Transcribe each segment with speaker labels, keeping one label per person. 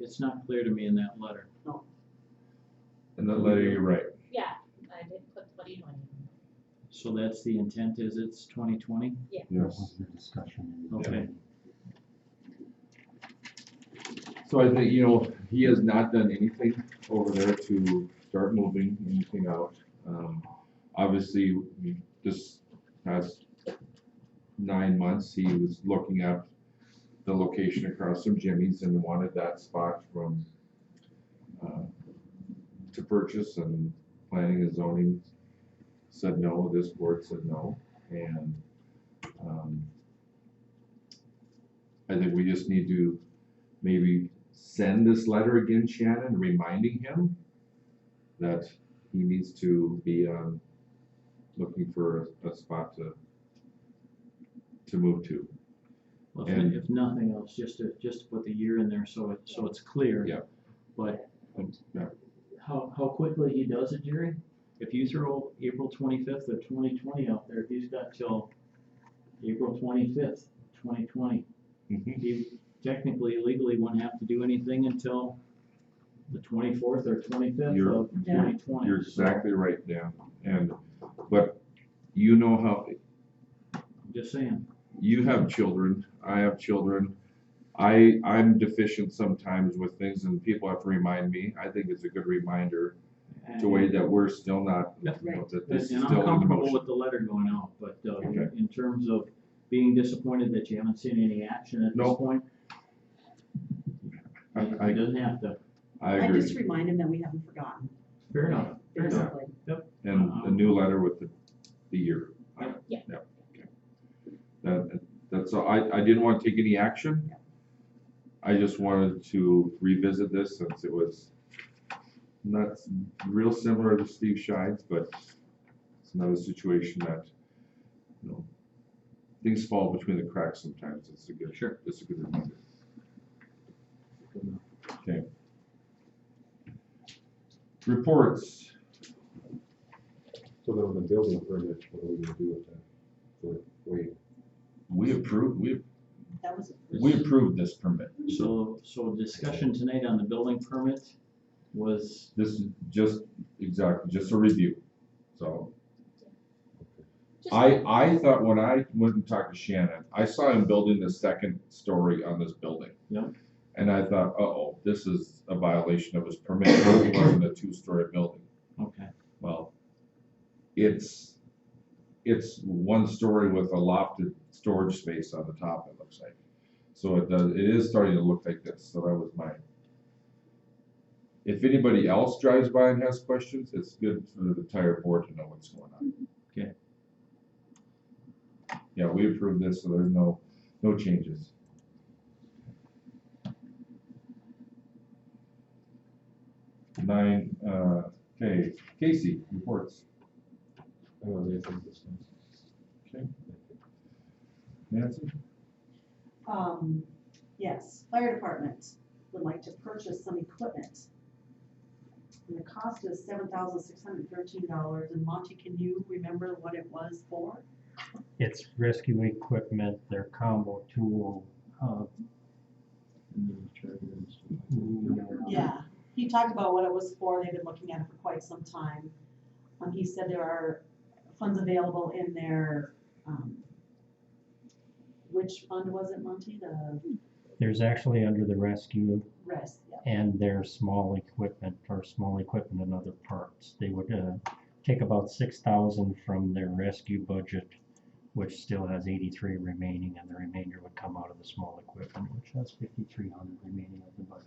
Speaker 1: it's not clear to me in that letter.
Speaker 2: In that letter, you're right.
Speaker 3: Yeah, I did put twenty twenty.
Speaker 1: So that's the intent is it's twenty twenty?
Speaker 4: Yes, your discussion.
Speaker 1: Okay.
Speaker 2: So I think, you know, he has not done anything over there to start moving anything out. Um, obviously, we this past nine months, he was looking at the location across from Jimmy's and wanted that spot from, uh, to purchase and planning and zoning said no, this board said no, and, um, I think we just need to maybe send this letter again, Shannon, reminding him that he needs to be, um, looking for a, a spot to, to move to.
Speaker 1: Well, if,
Speaker 2: And-
Speaker 1: if nothing else, just to, just to put the year in there so it, so it's clear.
Speaker 2: Yeah.
Speaker 1: But
Speaker 2: Yeah.
Speaker 1: Mm-hmm. how, how quickly he does it, Jerry? If you throw April twenty-fifth of twenty twenty out there, he's got till April twenty-fifth, twenty twenty. He technically legally wouldn't have to do anything until the twenty-fourth or twenty-fifth
Speaker 2: You're-
Speaker 1: of twenty twenty.
Speaker 2: You're exactly right, Dan, and, but you know how,
Speaker 1: Just saying.
Speaker 2: you have children, I have children. I, I'm deficient sometimes with things and people have to remind me. I think it's a good reminder
Speaker 1: And-
Speaker 2: to way that we're still not, you know, that
Speaker 1: And
Speaker 2: this is
Speaker 1: and
Speaker 2: still
Speaker 1: I'm
Speaker 2: in
Speaker 1: comfortable
Speaker 2: motion.
Speaker 1: with the letter going out, but uh,
Speaker 2: Okay.
Speaker 1: in terms of being disappointed that you haven't seen any action at this
Speaker 2: Nope.
Speaker 1: point,
Speaker 2: I, I-
Speaker 1: it doesn't have to.
Speaker 2: I
Speaker 5: I
Speaker 2: agree.
Speaker 5: just remind him that we haven't forgotten,
Speaker 1: Fair enough. Fair enough.
Speaker 5: basically.
Speaker 2: And a new letter with the, the year. on it.
Speaker 3: Yeah.
Speaker 2: okay. That, that's, all. I, I didn't want to take any action. I just wanted to revisit this since it was not s- real similar to Steve Shine's, but it's another situation that, you know, things fall between the cracks sometimes. It's a good,
Speaker 1: Sure.
Speaker 2: it's a good reminder.
Speaker 1: Good enough.
Speaker 2: Reports.
Speaker 4: So then the building permit, what are we gonna do with that? For, wait,
Speaker 6: We approved, we,
Speaker 5: That was,
Speaker 6: we approved this permit.
Speaker 1: So, so discussion tonight on the building permit was,
Speaker 2: This is just, exactly, just a review. So
Speaker 3: Just-
Speaker 2: I, I thought when I went and talked to Shannon, I saw him building the second story on this building.
Speaker 1: Yeah.
Speaker 2: And I thought, uh-oh, this is a violation of his permit, it wasn't a two-story building.
Speaker 1: okay,
Speaker 2: Well, it's, it's one story with a lofted storage space on the top, it looks like. So it does, it is starting to look like this, so that was my. If anybody else drives by and has questions, it's good for the entire board to know what's going on.
Speaker 1: Okay.
Speaker 2: Yeah, we approved this, so there's no, no changes. Nine, uh, okay, Casey, reports.
Speaker 4: I don't know anything this time.
Speaker 2: Nancy?
Speaker 5: um, yes, fire department would like to purchase some equipment. And the cost is seven thousand six hundred thirteen dollars, and Monty, can you remember what it was for?
Speaker 7: It's rescue equipment, their combo tool, uh,
Speaker 1: and then the treasurer's-
Speaker 5: Yeah, he talked about what it was for, they've been looking at it for quite some time. Um, he said there are funds available in their, um, which fund was it, Monty? The
Speaker 7: there's actually under the rescue
Speaker 5: rest, yeah.
Speaker 7: and their small equipment or small equipment and other parts. They would, uh, take about six thousand from their rescue budget, which still has eighty-three remaining, and the remainder would come out of the small equipment, which has fifty-three hundred remaining of the budget.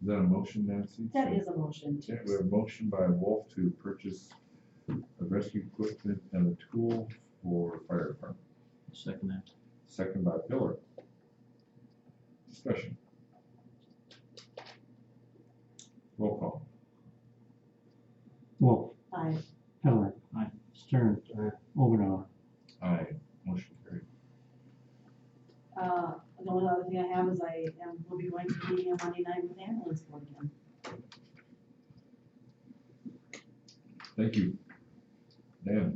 Speaker 2: Is that a motion, Nancy?
Speaker 5: That is a motion to
Speaker 2: Okay, we have a motion by Wolf to purchase a rescue equipment and a tool for fire department,
Speaker 1: Second that.
Speaker 2: second by Pillar. Discussion. Roll call.
Speaker 7: Wolf,
Speaker 5: Aye.
Speaker 7: Heller.
Speaker 1: Aye.
Speaker 7: Stern. Ovindar.
Speaker 2: Aye, motion carried.
Speaker 5: Uh, the only other thing I have is I am, will be going to be on Monday night with ambulance board again.
Speaker 2: Thank you. Dan?